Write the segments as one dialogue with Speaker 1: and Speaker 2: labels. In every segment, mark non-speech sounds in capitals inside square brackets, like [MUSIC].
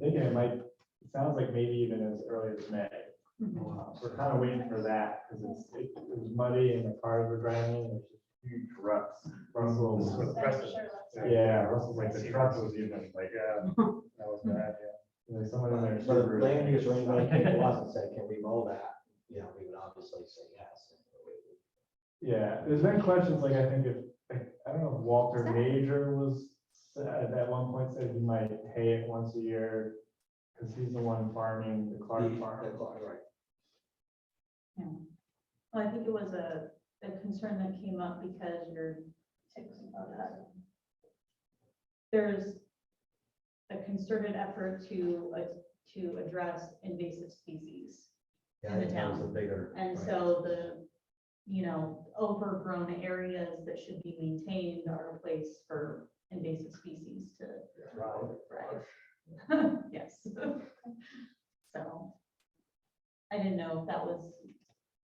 Speaker 1: thinking it might, it sounds like maybe even as early as May. Uh, We're kind of waiting for that because it's, it it was muddy and the cars were driving, and there's just huge ruts. Russell was
Speaker 2: Is that
Speaker 1: impressive.
Speaker 2: sure last night?
Speaker 1: Yeah, Russell's like, the truck was even like, yeah, that was bad, yeah. There's someone in there.
Speaker 3: But if land use or anybody came to us and said, can we mow that? You know, we would obviously say yes.
Speaker 1: Yeah, there's been questions, like, I think if, like, I don't know, if Walter Major was, uh, at one point said he might pay it once a year. Cause he's the one farming the Clark
Speaker 3: The
Speaker 1: farm.
Speaker 3: Clark, right.
Speaker 2: Well, I think it was a, a concern that came up because you're. There's a concerted effort to, uh, to address invasive species.
Speaker 3: Yeah,
Speaker 2: In the
Speaker 3: I think that was a bigger.
Speaker 2: And
Speaker 3: right.
Speaker 2: so the, you know, overgrown areas that should be maintained are a place for invasive species to
Speaker 3: Right.
Speaker 2: thrive. [LAUGHS] Yes. So I didn't know if that was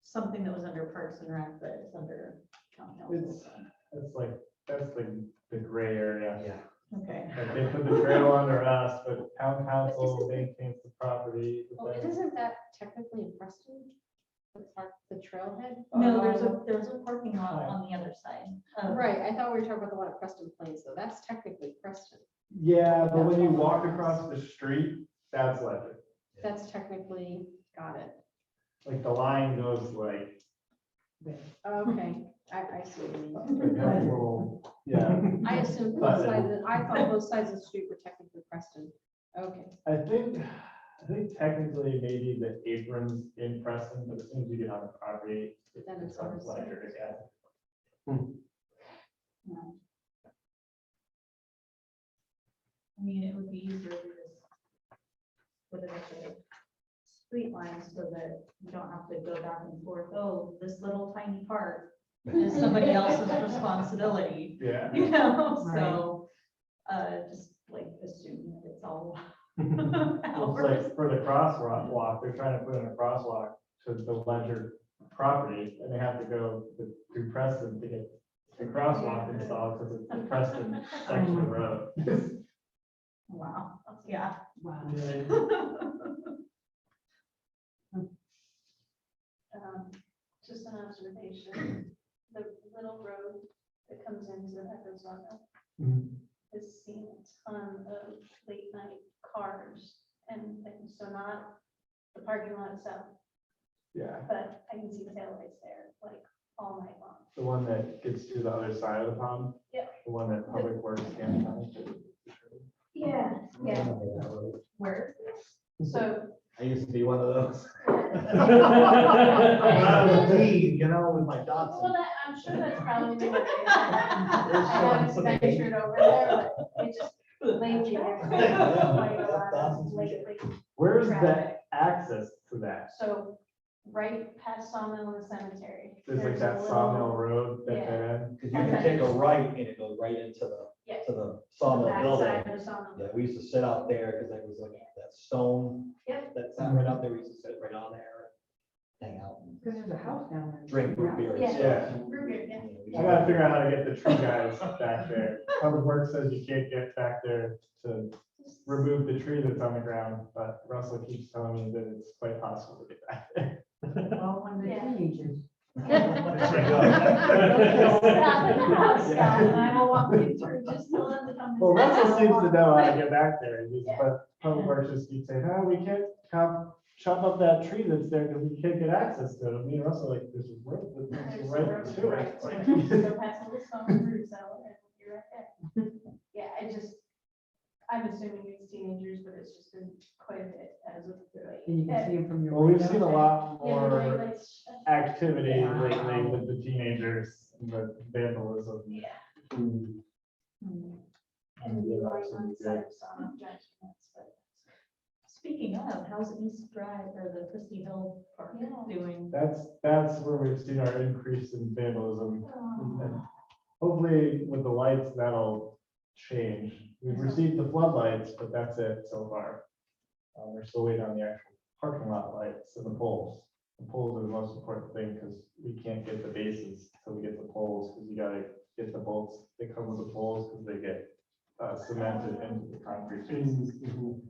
Speaker 2: something that was under Parks and Rec, but it's under Town Council.
Speaker 1: It's- That's like, that's the, the gray area.
Speaker 3: Yeah,
Speaker 2: Okay.
Speaker 1: Like, they put the trail under us, but town council maintains the property. but
Speaker 4: Well,
Speaker 1: then-
Speaker 4: isn't that technically in Preston? The park, the trailhead?
Speaker 2: No,
Speaker 4: Or-
Speaker 2: there's a, there's a parking lot on the other side. of-
Speaker 4: uh, Right, I thought we were talking about the one at Preston Plains, though. That's technically Preston.
Speaker 1: Yeah, but when you walk across the street, that's Ledger.
Speaker 4: That's technically, got it.
Speaker 1: Like the line goes like,
Speaker 4: Okay, I, I see. what you mean.
Speaker 1: like that little- yeah.
Speaker 4: I assumed both
Speaker 1: But-
Speaker 4: sides, of- I thought both sides of the street were technically Preston. Okay,
Speaker 1: I think, I think technically maybe the apron's in Preston, but as soon as you get on the property.
Speaker 4: Then it's
Speaker 1: on
Speaker 4: ours.
Speaker 1: Ledger, yeah.
Speaker 2: No. I mean, it would be easier to just put it at the street line so that you don't have to go back and forth, oh, this little tiny part is somebody else's responsibility,
Speaker 5: [LAUGHS]
Speaker 1: Yeah.
Speaker 2: you know, so, uh, just like assume that it's
Speaker 5: [LAUGHS]
Speaker 2: all [LAUGHS]
Speaker 1: [LAUGHS] It's
Speaker 2: ours.
Speaker 1: like for the crosswalk walk, they're trying to put in a crosswalk to the Ledger property and they have to go to- through Preston to get the crosswalk installed
Speaker 6: [LAUGHS]
Speaker 1: because it's the Preston section of the road.
Speaker 2: Wow, yeah. [LAUGHS]
Speaker 5: Wow.
Speaker 6: um, just an observation, the little road that comes into Hecozona has seen a ton of late night cars and things, so not the parking lot itself,
Speaker 1: Yeah,
Speaker 6: but I can see taillights there like all night long.
Speaker 1: the one that gets to the other side of the pond.
Speaker 6: Yeah.
Speaker 1: The one that Public Works can come
Speaker 6: Yeah, yeah.
Speaker 2: Where?
Speaker 6: So
Speaker 3: I used to be one
Speaker 2: [LAUGHS]
Speaker 3: of those. I
Speaker 1: [LAUGHS]
Speaker 3: was a
Speaker 1: to.
Speaker 3: teen, you know, with my
Speaker 6: Well,
Speaker 3: Datsun.
Speaker 6: that, I'm sure that's probably. what it is. I haven't ventured over there, but it
Speaker 1: [LAUGHS]
Speaker 6: just
Speaker 2: [LAUGHS]
Speaker 6: lately. there's been quite a lot of late, late
Speaker 1: Where's that
Speaker 6: traffic.
Speaker 1: access to that?
Speaker 6: So right past Sawmill and the Cemetery.
Speaker 1: There's like
Speaker 6: a
Speaker 1: that
Speaker 6: little-
Speaker 1: sawmill road that
Speaker 6: yeah.
Speaker 1: they're in.
Speaker 3: Because you can take a right and it goes right into the,
Speaker 6: Yeah.
Speaker 3: to the
Speaker 6: the
Speaker 3: sawmill building.
Speaker 6: backside of Sawmill.
Speaker 3: Yeah, we used to sit out there because there was like that stone.
Speaker 6: Yep.
Speaker 3: That's not right out there. We used to sit right on there, hang out, and
Speaker 5: Because there's a house down there.
Speaker 3: drink root beer. and
Speaker 6: Yeah.
Speaker 3: stuff.
Speaker 6: Root beer, yeah.
Speaker 1: I gotta figure out how to get the tree guys back there. Public Works says you can't get back there to remove the tree that's on the ground, but Russell keeps telling me that it's quite possible to get back there.
Speaker 5: Well, when the
Speaker 6: Yeah.
Speaker 5: teenagers.
Speaker 6: Stop at [LAUGHS] the house, Scott, and I will walk you through just to let the company.
Speaker 1: Well, Russell seems to know how to get back there, just- but Public Works just keeps saying, oh, we can't chop, chop up that tree that's there because we can't get access to it. And Me and Russell are like, there's a road that
Speaker 6: There's
Speaker 1: leads
Speaker 6: a
Speaker 1: right
Speaker 6: road
Speaker 1: to
Speaker 6: right
Speaker 1: it.
Speaker 6: to
Speaker 1: Like,
Speaker 6: it.
Speaker 1: [LAUGHS]
Speaker 6: Go past the Sawmill Root Cellar and you're right there. Yeah, I just, I'm assuming it's teenagers, but it's just been quite a bit as of
Speaker 5: And you can
Speaker 6: late.
Speaker 5: see them from your.
Speaker 1: Well, we've
Speaker 5: window.
Speaker 1: seen a lot
Speaker 6: Yeah, the
Speaker 1: more
Speaker 6: lights, uh,
Speaker 1: activity
Speaker 5: Yeah.
Speaker 1: lately with the teenagers, and the vandalism.
Speaker 6: Yeah. [LAUGHS]
Speaker 1: [LAUGHS] and-
Speaker 2: Hmm.
Speaker 6: And
Speaker 1: Yeah,
Speaker 6: the light
Speaker 1: that's
Speaker 6: on the
Speaker 1: really
Speaker 6: side of Sawmill, Judge, that's what-
Speaker 2: Speaking of, how's East Drive or the Christie Hill Park
Speaker 6: Yeah.
Speaker 2: doing?
Speaker 1: That's, that's where we've seen our increase in vandalism.
Speaker 6: Oh.
Speaker 1: And Hopefully with the lights, that'll change. We've received the floodlights, but that's it so far. Uh, we're still waiting on the actual parking lot lights and the poles. The poles are the most important thing because we can't get the bases till we get the poles, because you gotta get the bolts that come with the poles, because they get uh, cemented into the concrete bases.